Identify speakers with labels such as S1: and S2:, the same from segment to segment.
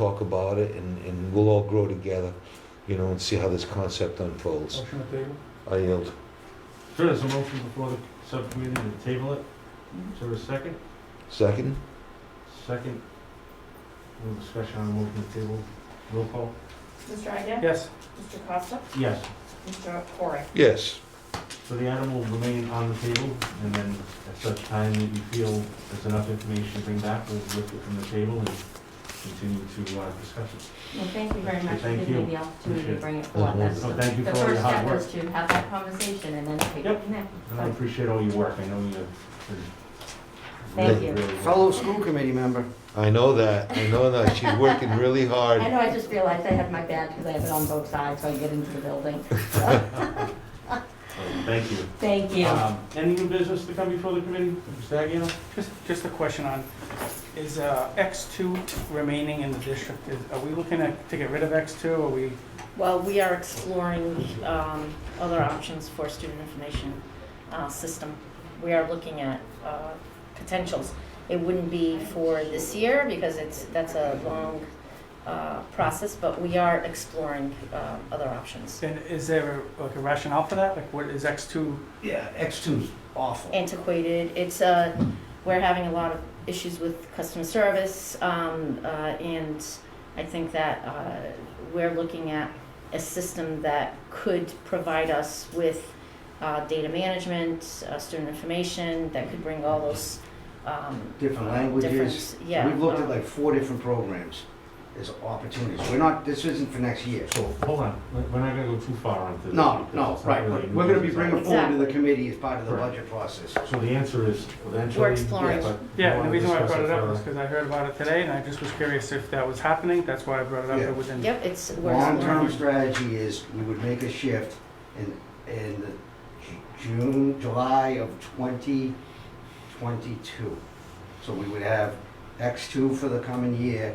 S1: talk about it and, and we'll all grow together, you know, and see how this concept unfolds.
S2: Motion to table?
S1: I yield.
S2: Sure, there's a motion before the subcommittee to table it. Is there a second?
S1: Second?
S2: Second. No discussion on the motion to table. Roll call?
S3: Mr. Ida?
S2: Yes.
S3: Mr. Costa?
S2: Yes.
S3: Mr. Corey?
S1: Yes.
S2: So the item will remain on the table, and then at such time that you feel there's enough information to bring back, we'll lift it from the table and continue to uh, discuss it.
S3: Well, thank you very much for
S2: Thank
S3: giving
S2: you.
S3: me the opportunity
S2: Appreciate
S3: to
S2: it.
S3: bring it forward. That's
S2: So
S3: the
S2: thank you
S3: the
S2: for all your
S3: first
S2: hard
S3: step
S2: work.
S3: was to have that conversation and then take it
S2: Yep.
S3: from there.
S2: And I appreciate all your work. I know you've been.
S3: Thank
S2: really,
S3: you.
S2: really working.
S4: Fellow school committee member.
S1: I know that. I know that. She's working really
S3: I
S1: hard.
S3: know, I just realized I had my badge because I have it on both sides, so I get into the building.
S2: So, Thank you.
S3: Thank you.
S2: Um, Any new business to come before the committee? Mr. Aguirre?
S5: Just, just a question on, is uh, X2 remaining in the district? Is- Are we looking at, to get rid of X2, or we,
S6: Well, we are exploring um, other options for student information uh, system. We are looking at uh, potentials. It wouldn't be for this year because it's, that's a long uh, process, but we are exploring uh, other options.
S5: and is there like a rationale for that? Like, what is X2?
S4: Yeah, X two's awful.
S6: Antiquated, it's a, we're having a lot of issues with customer service, um, uh, and I think that uh, we're looking at a system that could provide us with uh, data management, uh, student information, that could bring all those um,
S4: Different
S6: uh,
S4: languages.
S6: difference- Yeah.
S4: We've looked
S6: uh,
S4: at like four different programs as opportunities. We're not, this isn't for next year.
S2: So, hold on, We're- we're not gonna go too far on this.
S4: No, no, right. We're- We're gonna be bringing forward to the
S6: Exactly.
S4: committee as part of the
S2: Right.
S4: budget process.
S2: So the answer is eventually.
S6: We're exploring.
S2: but we
S5: Yeah, and
S2: wanna
S5: the reason why I
S2: discuss
S5: brought it up was
S2: further.
S5: because I heard about it today, and I just was curious if that was happening, that's why I brought it up,
S4: Yeah.
S5: it was in.
S6: Yep, it's, we're
S4: Long-term
S6: exploring.
S4: strategy is we would make a shift in, in the Ju- June, July of twenty twenty-two. So we would have X two for the coming year,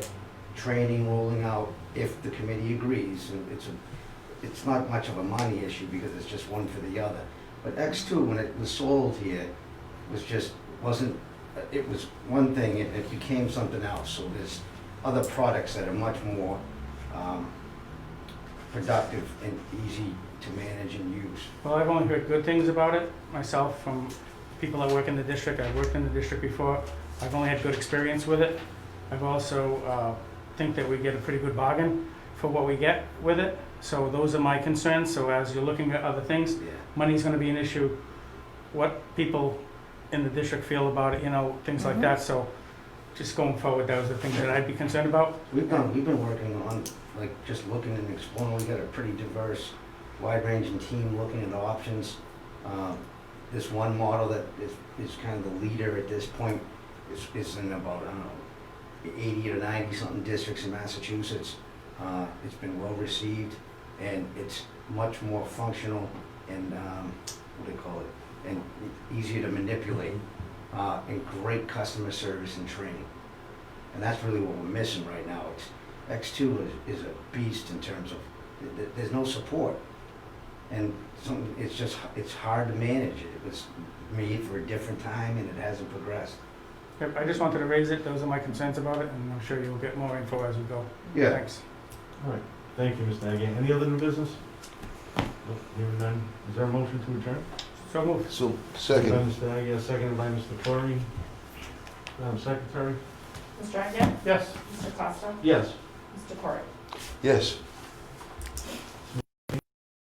S4: training rolling out if the committee agrees. And It's a, it's not much of a money issue because it's just one for the other. But X two, when it was sold here, was just, wasn't, it was one thing, it, it became something else. So there's other products that are much more, um, productive and easy to manage and use.
S5: Well, I've only heard good things about it myself from people that work in the district. I've worked in the district before. I've only had good experience with it. I've also uh, think that we get a pretty good bargain for what we get with it. So those are my concerns. So as you're looking at other things,
S4: Yeah.
S5: money's going to be an issue. What people in the district feel about it, you know, things like
S6: Mhm.
S5: that. So just going forward, that was the things that I'd be concerned about.
S4: We've been, we've been working on, like, just looking and exploring, we got a pretty diverse, wide-ranging team looking at options. Um, This one model that is, is kind of the leader at this point is, is in about, I don't know, eighty or ninety-something districts in Massachusetts. Uh, It's been well-received, and it's much more functional and, um, what do they call it? And easier to manipulate, uh, and great customer service and training. And that's really what we're missing right now. It's, X2 is, is a beast in terms of, th- th- there's no support. And some, it's just, h- it's hard to manage. It was made for a different time and it hasn't progressed.
S5: Yep, I just wanted to raise it. Those are my concerns about it, and I'm sure you'll get more info as we go. Thanks.
S2: All right, thank you, Mr. Aguirre. Any other new business? Nope, Hearing none. Is there a motion to adjourn?
S5: So moved.
S1: So,
S2: By
S1: second.
S2: Mr. Aguirre, seconded by Mr. Corey. Madam Secretary?
S3: Mr. Ida?
S5: Yes.
S3: Mr. Costa?
S2: Yes.
S3: Mr. Corey?
S1: Yes.